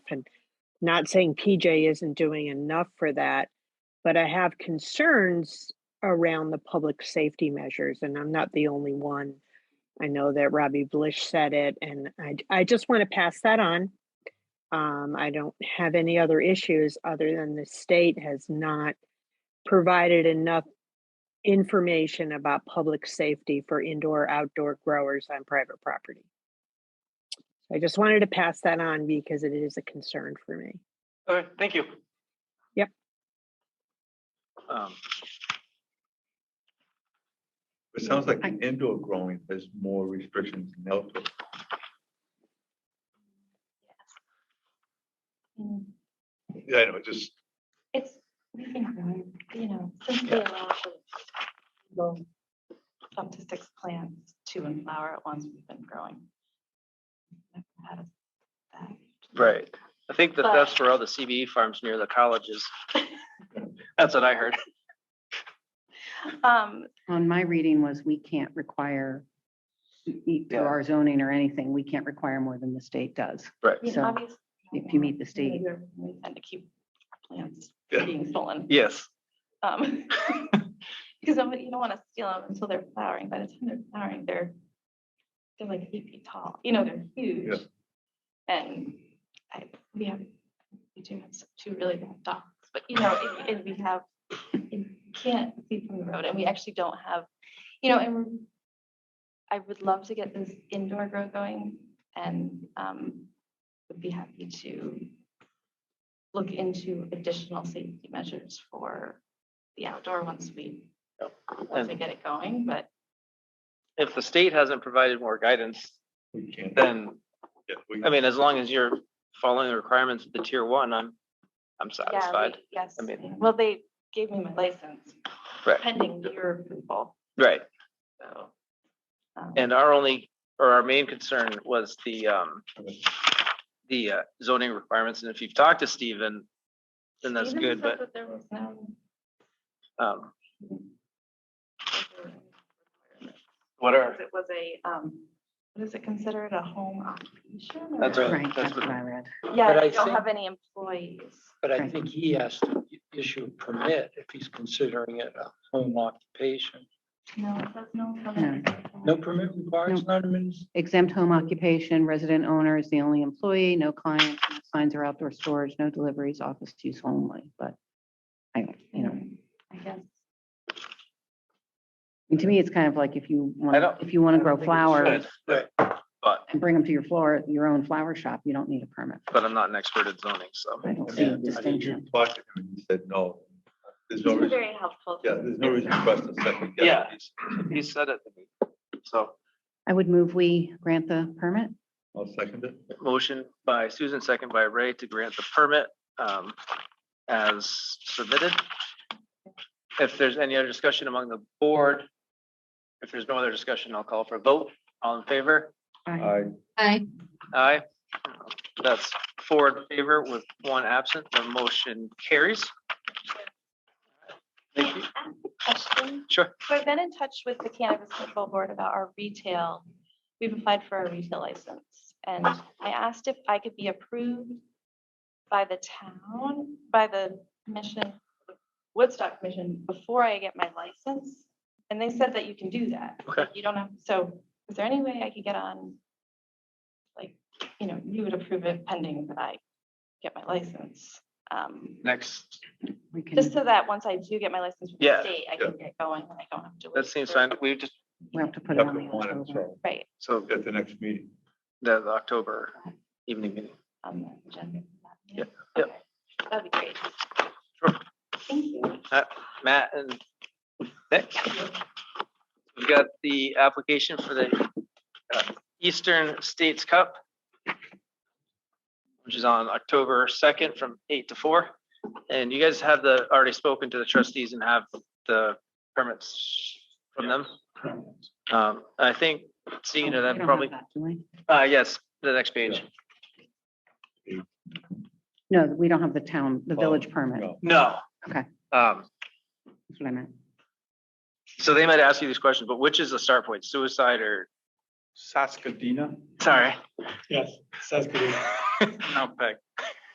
and not saying PJ isn't doing enough for that, but I have concerns around the public safety measures, and I'm not the only one. I know that Robbie Blish said it, and I, I just want to pass that on. Um, I don't have any other issues other than the state has not provided enough information about public safety for indoor outdoor growers on private property. I just wanted to pass that on because it is a concern for me. Okay, thank you. Yep. Um, It sounds like I- the indoor growing, there's more restrictions than outdoor. Mm, Yeah, I know, it just, It's, we've been growing, you know, since they allowed for little- up to six plants to in flower at once, we've been growing. Never had a bad- right. I think that But- that's for all the CBE farms near the colleges. That's what I heard. Um, On my reading was we can't require, e- Yeah. through our zoning or anything, we can't require more than the state does. Right. you So, know, obviously. if you meet the state- we're- We tend to keep our plants Yeah. being stolen. Yes. Um, because somebody, you don't want to steal them until they're flowering. By the time they're flowering, they're, they're like eight feet tall, you know, they're huge. And I, we have, we do have some- two really bad dogs, but you know, it- and we have, you can't see from the road and we actually don't have, you know, and we're- I would love to get this indoor grow going and, um, would be happy to look into additional safety measures for the outdoor once we, once we And get it going, but if the state hasn't provided more guidance, we can't. then, yeah, we- I mean, as long as you're following the requirements of the tier one, I'm, I'm yeah, satisfied. we- yes. I mean- Well, they gave me my license Right. pending your approval, Right. so. um, And our only, or our main concern was the, um, the uh, zoning requirements. And if you've talked to Stephen, then that's Steven good, said but, that there was no- um, what are, It was a, um, what is it considered, a home occupation? That's or- right. right, that's that's what- what I read. Yeah, But I they don't think- have any employees. But I Right. think he has to issue a permit if he's considering it a home occupation. No, it says no permit. No permit required, it's not a means. Exempt home occupation, resident owner is the only employee, no clients, no signs or outdoor storage, no deliveries, office use only, but I, don't- you know, I guess. and to me, it's kind of like if you want, don't- if you want to I grow don't think it flowers should, But, but- and bring them to your floor, your own flower shop, you don't need a permit. but I'm not an expert at zoning, so. I don't see Yeah, a I think you distinction. talked to him and he said, no, there's It's no been reason, very helpful. yeah, there's no reason for us to second guess. Yeah. these. He said it to me. So, I would move we grant the permit. I'll second it. motion by Susan, second by Ray to grant the permit, um, as submitted. If there's any other discussion among the board, if there's no other discussion, I'll call for a vote. All in favor? Uh, I, Aye. Aye. That's four in favor with one absent. The motion carries. Thank you. Question? Sure. So I've been in touch with the Cannabis Control Board about our retail. We've applied for a retail license and I asked if I could be approved by the town, by the commission, Woodstock Commission, before I get my license. And they said that you can do that. Okay. You don't have, so is there any way I could get on? Like, you know, you would approve it pending that I get my license. Um, Next, We can- just so that once I do get my license from the Yeah, state, I can get going and I don't have to. that wait seems for- fine. We just, We'll have to put it have on to the want it, October. so, Right, so at the next meeting. the the October evening meeting. on the agenda. Yeah, yeah. Okay, That'd be great. Sure. Thank you. Matt and Nick. We've got the application for the uh, Eastern States Cup, which is on October 2nd from 8 to 4. And you guys have the, already spoken to the trustees and have the permits from them? Um, I think, seeing Oh, that, we don't have probably, that, do we? uh, yes, the next page. No, we don't have the town, the Oh, village permit. no. No. Okay. Um, That's what I meant. so they might ask you these questions, but which is the start point, suicide or, Saskadina? sorry, Yes, Saskadina. Mount Peg?